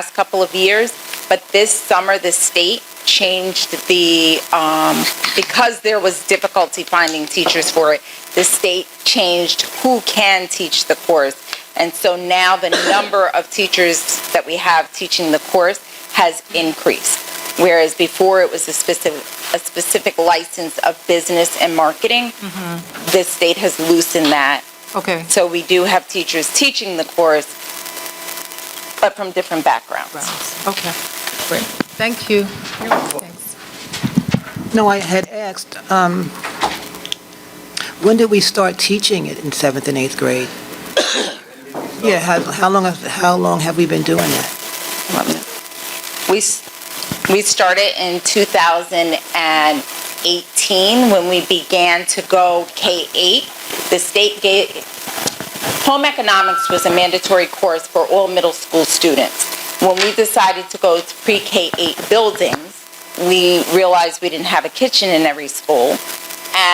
last couple of years, but this summer, the state changed the, um, because there was difficulty finding teachers for it, the state changed who can teach the course. And so now the number of teachers that we have teaching the course has increased. Whereas before, it was a specific, a specific license of business and marketing. The state has loosened that Okay, so we do have teachers teaching the course, but from different backgrounds. grounds. okay, great. Thank you. Thanks. No, I had asked, um, when did we start teaching it in seventh and eighth grade? Yeah, how, how long, have- how long have we been doing that? We, s- we started in 2018 when we began to go K-8. The state gave, home economics was a mandatory course for all middle school students. When we decided to go to pre-K-8 buildings, we realized we didn't have a kitchen in every school.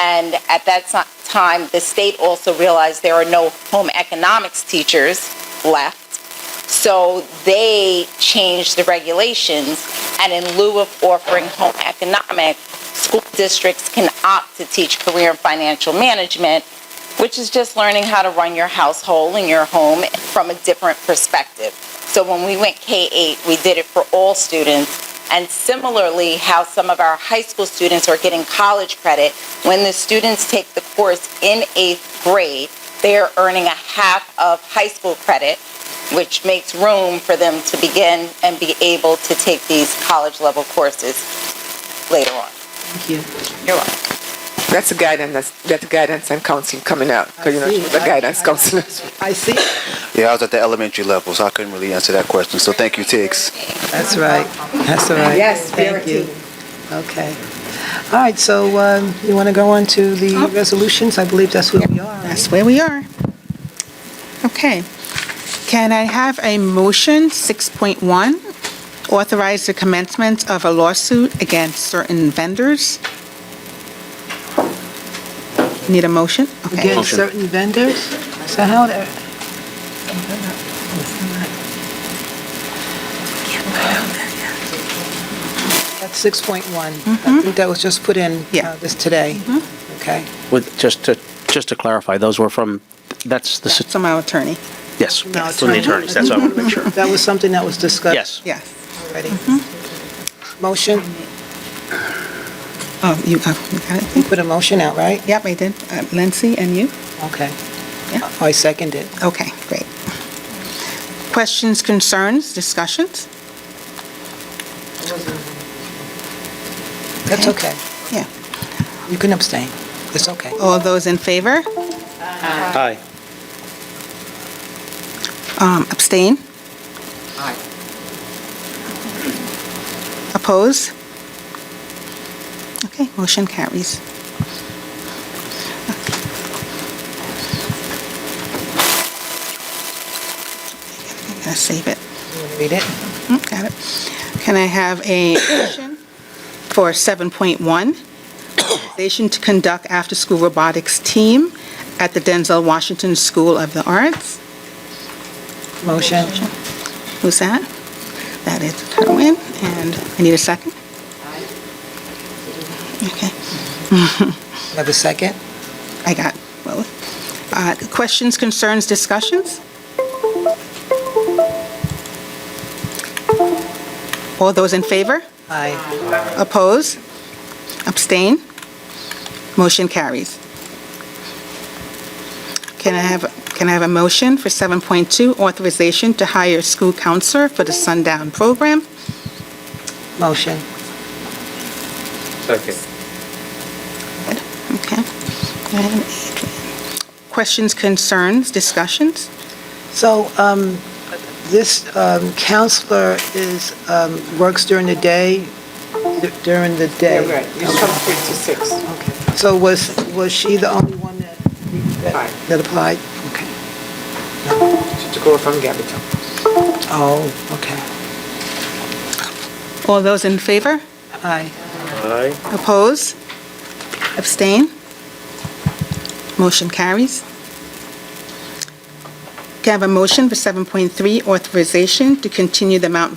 And at that ti- time, the state also realized there are no home economics teachers left. So they changed the regulations, and in lieu of offering home economics, school districts can opt to teach career and financial management, which is just learning how to run your household and your home from a different perspective. So when we went K-8, we did it for all students. And similarly, how some of our high school students are getting college credit, when the students take the course in eighth grade, they are earning a half of high school credit, which makes room for them to begin and be able to take these college-level courses later on. Thank you. You're welcome. That's a guidance, that's- that's guidance and counseling coming out, because you know, she was a I- guidance I- counselor. I see, Yeah, I was at the elementary level, so I couldn't really answer that question. So thank you, Tiggs. that's right, that's all right. Yes, we are a Thank you. Okay. All right, so, um, you want to go on to the resolutions? I believe that's where we are. That's where we are. Okay. Can I have a motion, 6.1, authorize the commencement of a lawsuit against certain vendors? Need a motion? Okay. Against certain vendors? So how, the- that's 6.1. I think that was just put in Yeah. uh, this today. Okay. With, just to, just to clarify, those were from, that's the, That's sit- from our attorney. yes, Now, from the attorneys, that's what I want to make sure. That was something that was discussed. Yes. Yes. Already. Motion, Oh, you oh, you got you it? put a motion out, right? Yep, I did. Uh, Lindsay, and you? Okay. Yeah. I second it. Okay, great. Questions, concerns, discussions? That's okay. Yeah. You can abstain. It's okay. Oh, All those in favor? Aye. Um, Abstain? Oppose? Okay, motion carries. I'm gonna save it. Read it. Mm, Got it. Can I have a motion for 7.1? Station to conduct after-school robotics team at the Denzel Washington School of the Arts. Motion. Who's that? That is Kerwin, and I need a second. Okay, Have a second? I got both. Uh, Questions, concerns, discussions? All those in favor? Aye. Oppose? Abstain? Motion carries. Can I have, can I have a motion for 7.2, authorization to hire school counselor for the Sundown program? Motion. Okay. Item eight. Questions, concerns, discussions? So um, this um, counselor is, um, works during the day, during the day? Okay. So was, was she the only one that, that- that applied? Okay. She took over from Gabby Oh, okay. All those in favor? Aye. Oppose? Abstain? Motion carries. Can I have a motion for 7.3, authorization to continue the Mount